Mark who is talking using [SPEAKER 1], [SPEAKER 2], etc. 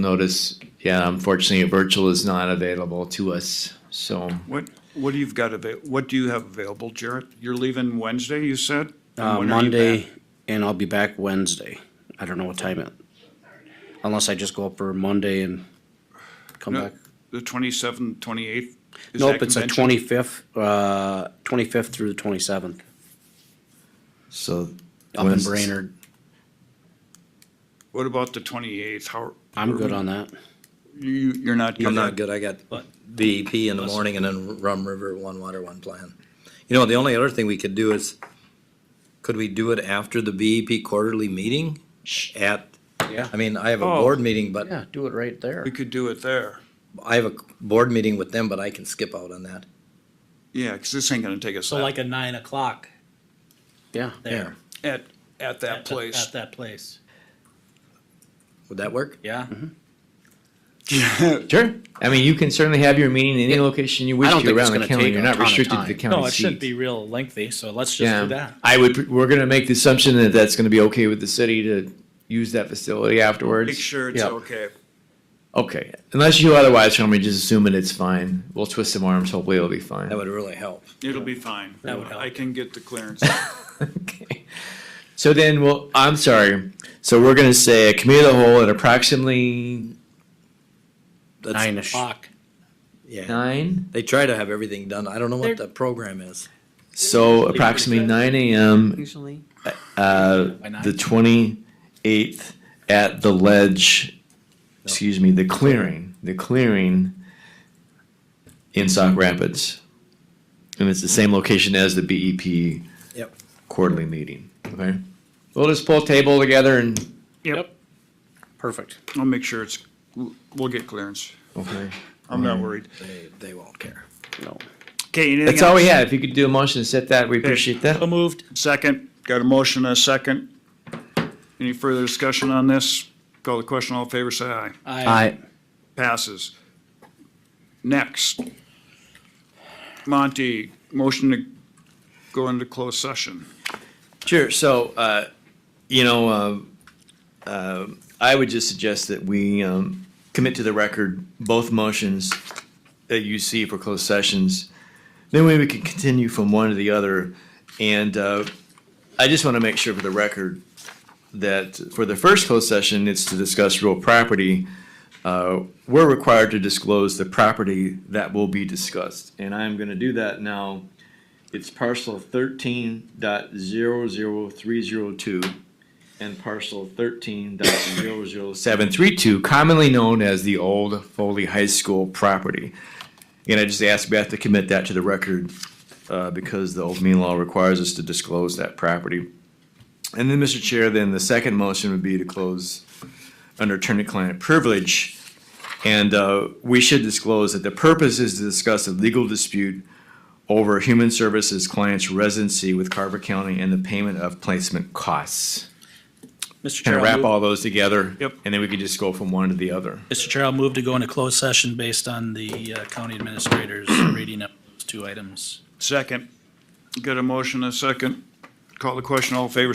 [SPEAKER 1] Notice, yeah, unfortunately, virtual is not available to us, so,
[SPEAKER 2] What, what do you've got avail, what do you have available, Jarrett? You're leaving Wednesday, you said? And
[SPEAKER 3] uh,
[SPEAKER 2] when are you
[SPEAKER 3] Monday,
[SPEAKER 2] back?
[SPEAKER 3] and I'll be back Wednesday. I don't know what time it, unless I just go up for Monday and come
[SPEAKER 2] No,
[SPEAKER 3] back.
[SPEAKER 2] The twenty-seventh, twenty-eighth?
[SPEAKER 3] Nope, it's the twenty-fifth, uh, twenty-fifth through the twenty-seventh,
[SPEAKER 1] so.
[SPEAKER 3] up in Brainerd.
[SPEAKER 2] What about the twenty-eighth? How,
[SPEAKER 3] I'm good on that.
[SPEAKER 2] you, you're not
[SPEAKER 4] I'm
[SPEAKER 2] gonna,
[SPEAKER 4] not good, I got BEP in the morning and then Rum River, One Water, One Plan. You know, the only other thing we could do is, could we do it after the BEP quarterly meeting? At,
[SPEAKER 3] Yeah.
[SPEAKER 4] I mean, I have a
[SPEAKER 2] Oh.
[SPEAKER 4] board meeting, but
[SPEAKER 3] Yeah, do it right there.
[SPEAKER 2] we could do it there.
[SPEAKER 4] I have a board meeting with them, but I can skip out on that.
[SPEAKER 2] Yeah, cause this ain't gonna take us
[SPEAKER 5] So
[SPEAKER 2] that,
[SPEAKER 5] like a nine o'clock
[SPEAKER 3] Yeah.
[SPEAKER 5] there.
[SPEAKER 2] at, at that
[SPEAKER 5] at the- At
[SPEAKER 2] place.
[SPEAKER 5] that place, Mm-hmm.
[SPEAKER 4] Would that work?
[SPEAKER 5] yeah?
[SPEAKER 1] Sure, I mean, you can certainly have your meeting in any location you wish
[SPEAKER 3] I don't
[SPEAKER 1] to
[SPEAKER 3] think it's
[SPEAKER 1] around the
[SPEAKER 3] gonna
[SPEAKER 1] county,
[SPEAKER 3] take
[SPEAKER 1] you're
[SPEAKER 3] a
[SPEAKER 1] not
[SPEAKER 3] ton of
[SPEAKER 1] restricted to
[SPEAKER 3] time.
[SPEAKER 1] the county
[SPEAKER 5] No, it
[SPEAKER 1] seat.
[SPEAKER 5] shouldn't be real lengthy, so let's just do
[SPEAKER 1] Yeah,
[SPEAKER 5] that.
[SPEAKER 1] I would, we're gonna make the assumption that that's gonna be okay with the city to use that facility afterwards.
[SPEAKER 2] Make sure it's
[SPEAKER 1] Yeah.
[SPEAKER 2] okay.
[SPEAKER 1] Okay, unless you otherwise tell me, just assume it, it's fine, we'll twist some arms, hopefully it'll be fine.
[SPEAKER 4] That would really help.
[SPEAKER 2] It'll be fine.
[SPEAKER 5] That would help.
[SPEAKER 2] I can get the clearance.
[SPEAKER 1] Okay. So then, well, I'm sorry. So we're gonna say a committee of the whole at approximately
[SPEAKER 4] That's-
[SPEAKER 3] Nine-ish.
[SPEAKER 5] Fuck.
[SPEAKER 4] Yeah,
[SPEAKER 1] nine.
[SPEAKER 4] they try to have everything done. I don't know what
[SPEAKER 5] They're-
[SPEAKER 4] the program is.
[SPEAKER 1] So approximately nine a.m.
[SPEAKER 6] usually.
[SPEAKER 1] Uh,
[SPEAKER 5] Why not?
[SPEAKER 1] the twenty eighth at the ledge. Excuse me, the clearing, the clearing in Sauk Rapids, and it's the same location as the BEP
[SPEAKER 4] Yep.
[SPEAKER 1] quarterly meeting. Okay, we'll just pull table together and
[SPEAKER 2] Yep.
[SPEAKER 3] Perfect.
[SPEAKER 2] I'll make sure it's, we'll we'll get clearance.
[SPEAKER 1] okay.
[SPEAKER 2] I'm
[SPEAKER 3] Mm-hmm.
[SPEAKER 2] not worried.
[SPEAKER 4] They, they won't care.
[SPEAKER 3] No.
[SPEAKER 2] Okay, anything else?
[SPEAKER 1] That's all we have. If you could do a motion to set that, we appreciate that.
[SPEAKER 5] So moved.
[SPEAKER 2] Second, got a motion and a second. Any further discussion on this? Call the question, all in favor, say aye.
[SPEAKER 3] I,
[SPEAKER 2] Passes. Next. Monty, motion to go into closed session.
[SPEAKER 1] Sure. So, uh, you know, uh, uh, I would just suggest that we um, commit to the record both motions that you see for closed sessions. Then we can continue from one to the other. And uh, I just want to make sure for the record that for the first closed session, it's to discuss real property. Uh, We're required to disclose the property that will be discussed. And I'm going to do that now. It's parcel thirteen dot zero zero three zero two and parcel thirteen dot zero zero seven three two, commonly known as the old Foley High School property. And I just asked Beth to commit that to the record, uh, because the old mean law requires us to disclose that property. And then, Mr. Chair, then the second motion would be to close under attorney-client privilege. And, uh, we should disclose that the purpose is to discuss a legal dispute over human services clients' residency with Carver County and the payment of placement costs. Kind
[SPEAKER 5] Mr. Chair,
[SPEAKER 1] of
[SPEAKER 5] I'll
[SPEAKER 1] wrap
[SPEAKER 5] move-
[SPEAKER 1] all those together.
[SPEAKER 2] Yep.
[SPEAKER 1] And then we could just go from one to the other.
[SPEAKER 5] Mr. Chair, I'll move to go into closed session based on the uh, county administrator's reading of those two items.
[SPEAKER 2] Second. Got a motion and a second. Call the question, all in favor,